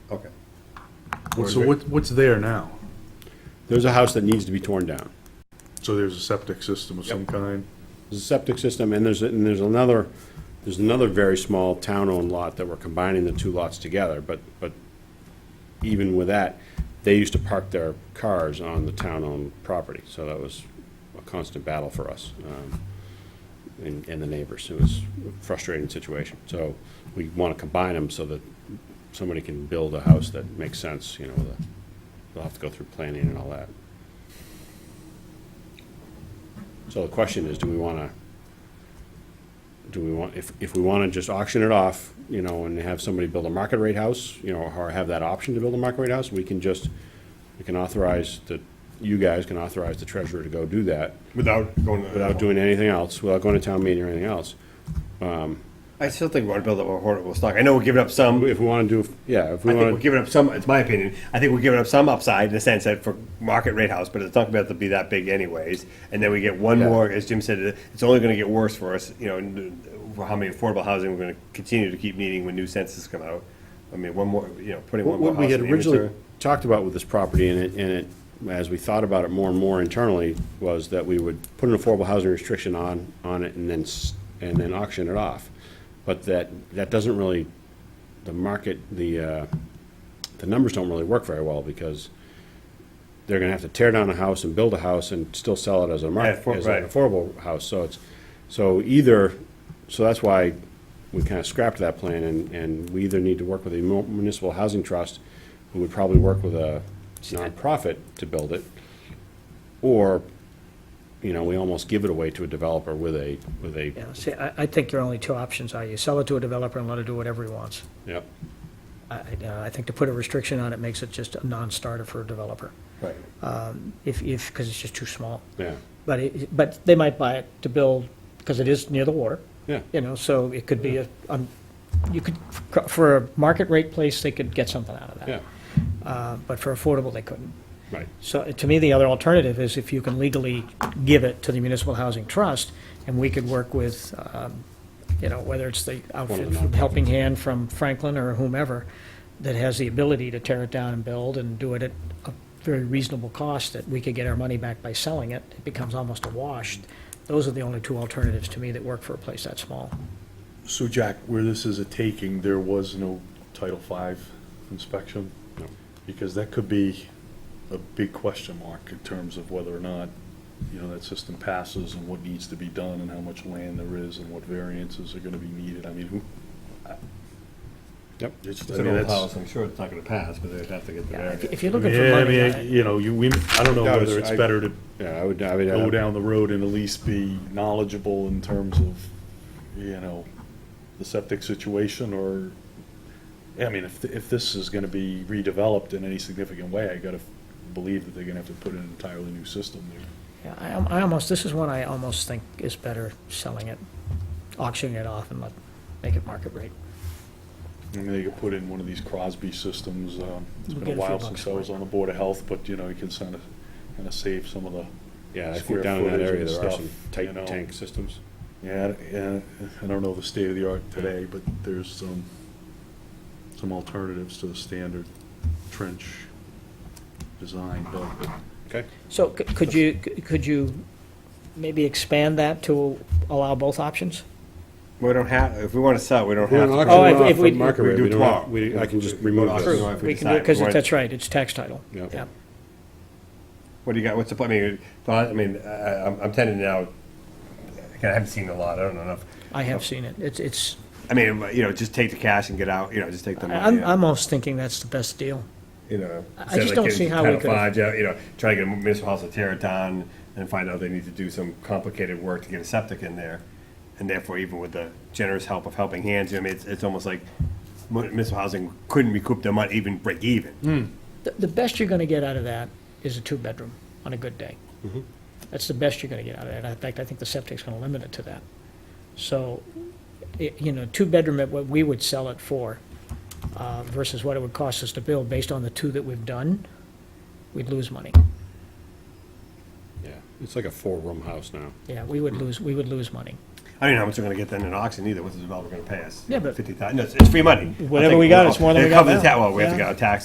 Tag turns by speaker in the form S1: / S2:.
S1: Okay.
S2: So what, what's there now?
S1: There's a house that needs to be torn down.
S2: So there's a septic system of some kind?
S1: There's a septic system, and there's, and there's another, there's another very small town-owned lot that we're combining the two lots together, but, but even with that, they used to park their cars on the town-owned property, so that was a constant battle for us, um, and, and the neighbors. It was a frustrating situation. So we want to combine them so that somebody can build a house that makes sense, you know, with a, they'll have to go through planning and all that. So the question is, do we want to, do we want, if, if we want to just auction it off, you know, and have somebody build a market rate house, you know, or have that option to build a market rate house, we can just, we can authorize the, you guys can authorize the treasurer to go do that
S3: Without going to.
S1: without doing anything else, without going to town meeting or anything else.
S3: I still think we want to build up a hoardable stock. I know we're giving up some.
S1: If we want to do, yeah, if
S3: I
S1: we
S3: think we're
S1: want to,
S3: giving up some, it's my opinion, I think we're giving up some upside in the sense that for market rate house, but it's not gonna be able to be that big anyways. And then we get one
S1: Yeah.
S3: more, as Jim said, it's only gonna get worse for us, you know, and, uh, for how many affordable housing we're gonna continue to keep needing when new census come out. I mean, one more, you know, putting one more
S1: what
S3: house
S1: we had
S3: in the
S1: originally
S3: inventory.
S1: talked about with this property and it, and it, as we thought about it more and more internally, was that we would put an affordable housing restriction on, on it and then, s- and then auction it off. But that, that doesn't really, the market, the, uh, the numbers don't really work very well because they're gonna have to tear down a house and build a house and still sell it as a
S3: Yeah,
S1: market,
S3: for-
S1: as an
S3: right.
S1: affordable house, so it's, so either, so that's why we kinda scrapped that plan, and, and we either need to work with a mu- municipal housing trust, who would probably work with a nonprofit to build it, or, you know, we almost give it away to a developer with a, with a,
S4: Yeah, see, I, I think your only two options are you sell it to a developer and let it do whatever he wants.
S1: yep,
S4: I, I- uh, I think to put a restriction on it makes it just a non-starter for a developer, Um,
S3: Right.
S4: if, if, because it's just too small.
S1: yeah,
S4: But it, but they might buy it to build, because it is near the water.
S1: Yeah.
S4: You know, so it could be a, um, you could, for a market rate place, they could get something out of that.
S1: yeah,
S4: Uh, But for affordable, they couldn't.
S1: right,
S4: So to me, the other alternative is if you can legally give it to the Municipal Housing Trust, and we could work with, um, you know, whether it's the outfit from Helping Hand from Franklin or whomever, that has the ability to tear it down and build and do it at a very reasonable cost, that we could get our money back by selling it, it becomes almost a wash. Those are the only two alternatives to me that work for a place that small.
S2: So Jack, where this is a taking, there was no Title V inspection?
S1: No.
S2: Because that could be a big question mark in terms of whether or not, you know, that system passes and what needs to be done and how much land there is and what variances are gonna be needed. I mean, who?
S1: yep.
S2: It's
S3: It's
S2: I
S3: an
S2: mean,
S3: old
S2: that's-
S3: house, I'm sure it's not gonna pass, but they'd have to get the
S4: Yeah,
S3: variance.
S4: if- if you're
S2: I
S4: looking for
S2: mean, I
S4: money,
S2: mean,
S4: I-
S2: you know, you, we, I don't know
S1: No,
S2: whether
S1: it's-
S2: it's
S1: I-
S2: better to
S1: Yeah, I would, I would.
S2: go down the road and at least be knowledgeable in terms of, you know, the septic situation or, I mean, if, if this is gonna be redeveloped in any significant way, I gotta believe that they're gonna have to put in an entirely new system.
S4: Yeah, I, al- I almost, this is one I almost think is better selling it, auctioning it off and let, make it market rate.
S2: I mean, they could put in one of these Crosby systems, um, it's been
S4: We'll get
S2: a
S4: a few
S2: while
S4: bucks
S2: since I
S4: for
S2: was
S4: it.
S2: on the Board of Health, but, you know, you can kind of, kind of save some of the,
S1: Yeah, I
S2: square
S1: think down in that
S2: footage
S1: area, there are
S2: and stuff,
S1: some
S2: you
S1: tight
S2: know.
S1: tank systems.
S2: yeah, yeah, I don't know the state of the art today, but there's some, some alternatives to the standard trench design, but
S1: Okay.
S4: So c- could you, c- could you maybe expand that to allow both options?
S3: We don't have, if we wanna sell, we don't
S1: We're
S3: have.
S1: an
S3: to.
S1: auction
S4: Oh, if-
S1: off
S4: if
S1: at
S4: we-
S1: market
S3: we
S1: rate,
S3: do
S1: we don't have-
S3: 12.
S1: we- I can just
S3: We
S1: remove
S3: go to
S1: this.
S3: auction. If we
S4: We can do,
S3: decide
S4: because
S3: we want-
S4: that's right, it's tax title.
S1: Yeah.
S4: Yeah.
S3: What do you got? What's the plan? I mean, thought- I mean, I- I'm, I'm tending now. I haven't seen a lot. I don't know enough.
S4: I have seen it. It's, it's,
S3: I mean, you know, just take the cash and get out. You know, just take the
S4: I-
S3: money.
S4: I'm,
S3: out,
S4: I'm almost thinking that's the best deal.
S3: you know,
S4: I
S3: instead of,
S4: just
S3: like,
S4: don't
S3: getting
S4: see how we
S3: Title
S4: could've-
S3: V, You know, try to get a municipal house to tear it down and find out they need to do some complicated work to get a septic in there. And therefore, even with the generous help of Helping Hands, you know, I mean, it's, it's almost like municipal housing couldn't recoup their money, even break even.
S4: The, the best you're gonna get out of that is a two-bedroom on a good day. That's the best you're gonna get out of that. In fact, I think the septic's gonna limit it to that. So, i you know, two-bedroom at what we would sell it for, uh, versus what it would cost us to build, based on the two that we've done, we'd lose money.
S1: Yeah, it's like a four-room house now.
S4: Yeah, we would lose, we would lose money.
S3: I don't know how much we're gonna get then in auction either, what's the developer gonna pay us?
S4: Yeah, but-
S3: Fifty thousand, no, it's, it's free money. I'll
S4: Whatever
S3: take-
S4: we got,
S3: well,
S4: it's more than
S3: it
S4: we got
S3: covers the
S4: now.
S3: ta- Well, we have to
S4: Yeah.
S3: get our taxes